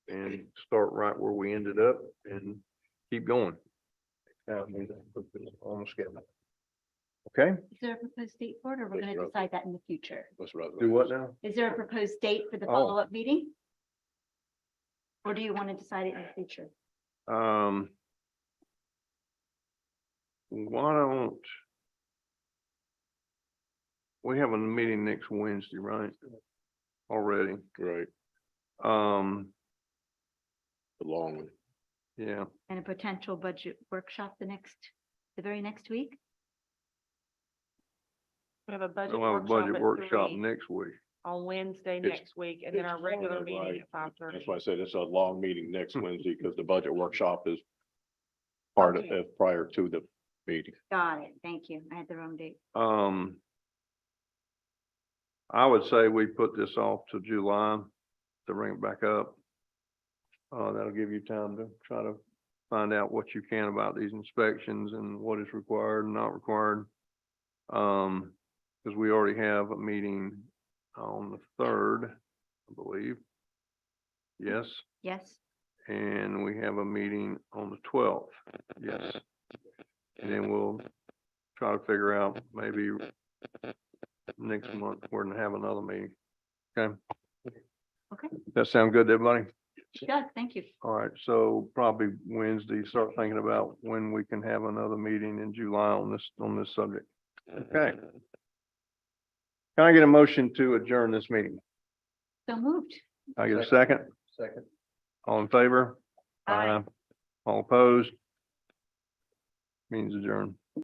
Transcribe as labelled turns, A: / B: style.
A: and start right where we ended up and keep going. Yeah, we put this on the schedule. Okay,
B: Is there a proposed date for it, or we're
C: Yes,
B: going to
C: Rob.
B: decide that in the future?
C: What's rather?
A: do what now?
B: Is there a proposed date for the
A: Oh.
B: follow-up meeting? Or do you want to decide it in the future?
A: Um. Why don't? We have a meeting next Wednesday, right? Already,
C: Right,
A: um,
C: the long one.
A: yeah,
B: And a potential budget workshop the next, the very next week?
D: We have a budget
A: we'll have a budget
D: workshop
A: workshop
D: at three
A: next week.
D: on Wednesday
C: It's-
D: next week and then
C: it's
D: our regular
C: fine,
D: meeting
C: right.
D: at five
C: That's
D: thirty.
C: why I said it's a long meeting next
A: Hmm.
C: Wednesday because the budget workshop is part of,
D: Okay.
C: uh, prior to the meeting.
B: Got it. Thank you. I had the wrong date.
A: Um. I would say we put this off to July to bring it back up. Uh, that'll give you time to try to find out what you can about these inspections and what is required and not required. Um, because we already have a meeting on the third, I believe. Yes,
B: Yes,
A: and we have a meeting on the twelfth, yes. And then we'll try to figure out maybe next month, we're gonna have another meeting. Okay?
B: Okay.
A: That sound good to everybody?
B: Doug, thank you.
A: All right, so probably Wednesday, start thinking about when we can have another meeting in July on this, on this subject. Okay. Can I get a motion to adjourn this meeting?
B: So moved.
A: Can I get a second?
C: Second.
A: All in favor?
B: Aye.
A: All opposed? Means adjourned.